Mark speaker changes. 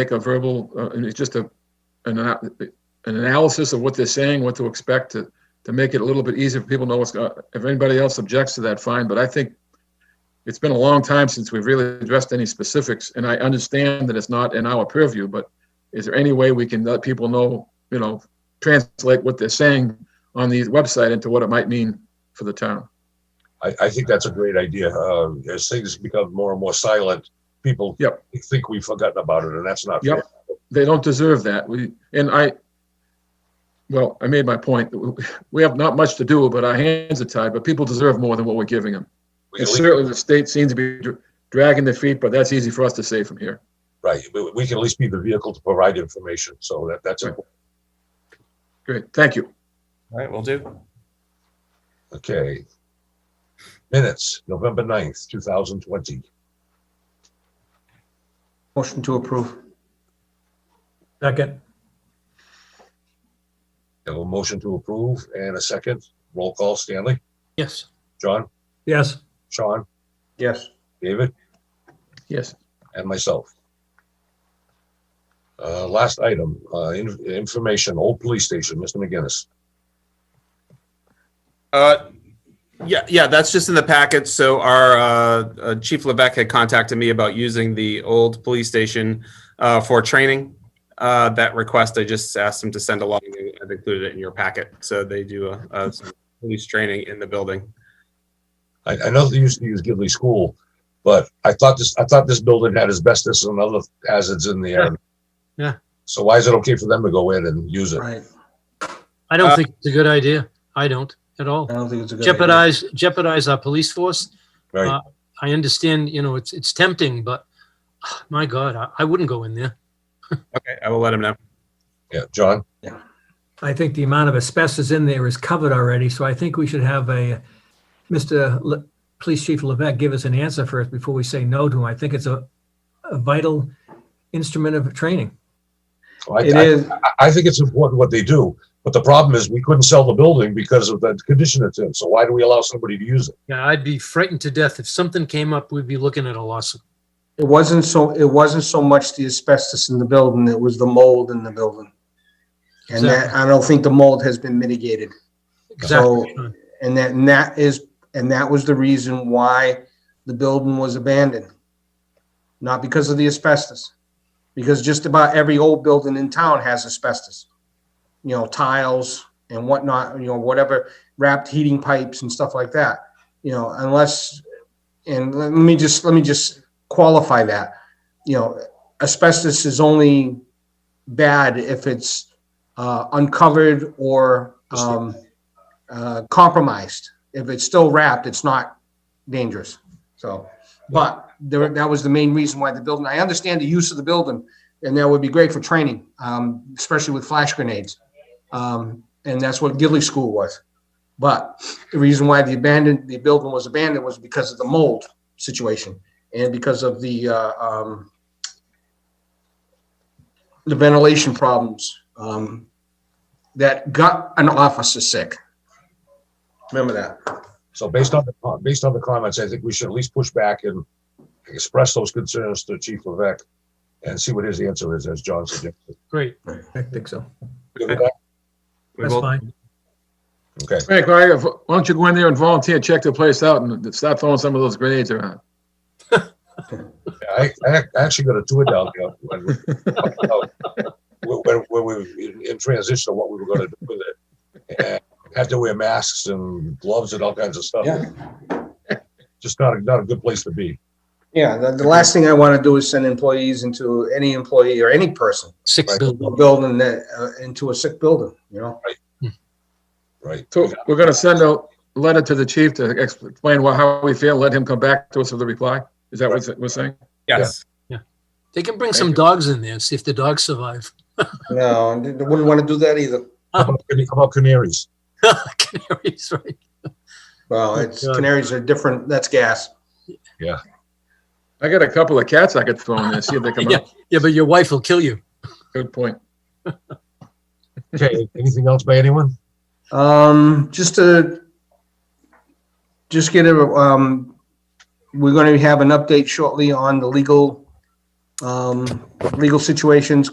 Speaker 1: make a verbal, uh, and it's just a, an, ana- an analysis of what they're saying, what to expect to, to make it a little bit easier for people to know what's, go- if anybody else objects to that, fine, but I think it's been a long time since we've really addressed any specifics, and I understand that it's not in our purview, but is there any way we can let people know, you know, translate what they're saying on the website into what it might mean for the town?
Speaker 2: I, I think that's a great idea. Uh, as things become more and more silent, people
Speaker 1: Yep.
Speaker 2: think we've forgotten about it, and that's not
Speaker 1: Yep. they don't deserve that. We, and I, well, I made my point. We have not much to do, but our hands are tied, but people deserve more than what we're giving them.
Speaker 2: We,
Speaker 1: And
Speaker 2: at least-
Speaker 1: certainly the state seems to be dr- dragging their feet, but that's easy for us to say from here.
Speaker 2: right. We, we can at least be the vehicle to provide information. So that, that's
Speaker 1: Right.
Speaker 2: important.
Speaker 1: Great, thank you.
Speaker 3: All right, will do.
Speaker 2: Okay. Minutes, November 9th, 2020.
Speaker 4: Motion to approve.
Speaker 5: Second,
Speaker 2: Have a motion to approve and a second. Roll call, Stanley.
Speaker 5: yes.
Speaker 2: John,
Speaker 5: Yes,
Speaker 2: Sean,
Speaker 4: Yes.
Speaker 2: David,
Speaker 1: Yes,
Speaker 2: and myself. Uh, last item, uh, in- information, old police station, Mr. McGinnis.
Speaker 6: Uh, yeah, yeah, that's just in the packet. So our uh, uh, Chief Levesque had contacted me about using the old police station uh, for training. Uh, that request, I just asked him to send along. and I've included it in your packet. So they do a, a police training in the building.
Speaker 2: I, I know they used to use Gidley School, but I thought this, I thought this building had asbestos and other hazards in the air.
Speaker 7: Yeah.
Speaker 2: So why is it okay for them to go in and use it?
Speaker 4: Right.
Speaker 7: I don't
Speaker 6: Uh,
Speaker 7: think it's a good idea. I don't at all.
Speaker 4: I don't think it's a good idea.
Speaker 7: Jeopardize jeopardize our police force.
Speaker 2: Right?
Speaker 7: Uh, I understand, you know, it's it's tempting, but ah, my God, I, I wouldn't go in there.
Speaker 6: Okay, I will let him know.
Speaker 2: Yeah, John?
Speaker 5: I think the amount of asbestos in there is covered already, so I think we should have a, Mr. Le- Police Chief Levesque give us an answer first before we say no to him. I think it's a, a vital instrument of training.
Speaker 2: I-
Speaker 4: It
Speaker 2: I-
Speaker 4: is,
Speaker 2: I- I think it's important what they do, but the problem is we couldn't sell the building because of the condition it's in. So why do we allow somebody to use it?
Speaker 7: Yeah, I'd be frightened to death. If something came up, we'd be looking at a lawsuit.
Speaker 4: it wasn't so, it wasn't so much the asbestos in the building, it was the mold in the building. And that, I don't think the mold has been mitigated.
Speaker 7: Exactly. Uh, Sean.
Speaker 4: And that, and that is, and that was the reason why the building was abandoned. Not because of the asbestos, because just about every old building in town has asbestos. You know, tiles and whatnot, you know, whatever wrapped heating pipes and stuff like that. You know, unless, and let me just, let me just qualify that. You know, asbestos is only bad if it's uh, uncovered or, um, uh, compromised. If it's still wrapped, it's not dangerous. So, but there, that was the main reason why the building, I understand the use of the building and that would be great for training, um, especially with flash grenades. Um, and that's what Gidley School was. But the reason why the abandoned, the building was abandoned was because of the mold situation and because of the, uh, um, the ventilation problems, um, that got an officer sick. Remember that.
Speaker 2: So based on the, based on the comments, I think we should at least push back and express those concerns to Chief Levesque and see what his answer is, as John suggested.
Speaker 7: Great.
Speaker 5: I think so.
Speaker 2: Good with that?
Speaker 6: We
Speaker 5: That's
Speaker 6: will-
Speaker 5: fine.
Speaker 2: Okay.
Speaker 1: Frank, why why don't you go in there and volunteer, check the place out and stop throwing some of those grenades around?
Speaker 2: I, I ac- actually got a tour down there when, we- when, when we were in- in transition of what we were going to do with it. And had to wear masks and gloves and all kinds of stuff.
Speaker 4: Yeah.
Speaker 2: Just not, a- not a good place to be.
Speaker 4: Yeah, the, the last thing I want to do is send employees into any employee or any person,
Speaker 7: Sick
Speaker 2: Right.
Speaker 4: a
Speaker 7: building.
Speaker 4: building that, uh, into a sick building, you know?
Speaker 2: Right.
Speaker 1: So we're gonna send a letter to the chief to ex- explain why, how we feel, let him come back to us with a reply? Is that what we're saying?
Speaker 6: Yes.
Speaker 7: They can bring some dogs in there, and see if the dogs survive.
Speaker 4: No, and they wouldn't want to do that either.
Speaker 2: How about, how about canaries?
Speaker 7: Canaries, right?
Speaker 4: Well, it's, canaries are different, that's gas.
Speaker 1: I got a couple of cats I could throw in there, see if they come out.
Speaker 7: Yeah, but your wife will kill you.
Speaker 1: Good point.
Speaker 2: Okay, anything else by anyone?
Speaker 4: Um, just to, just get a, um, we're going to have an update shortly on the legal Um, Legal situations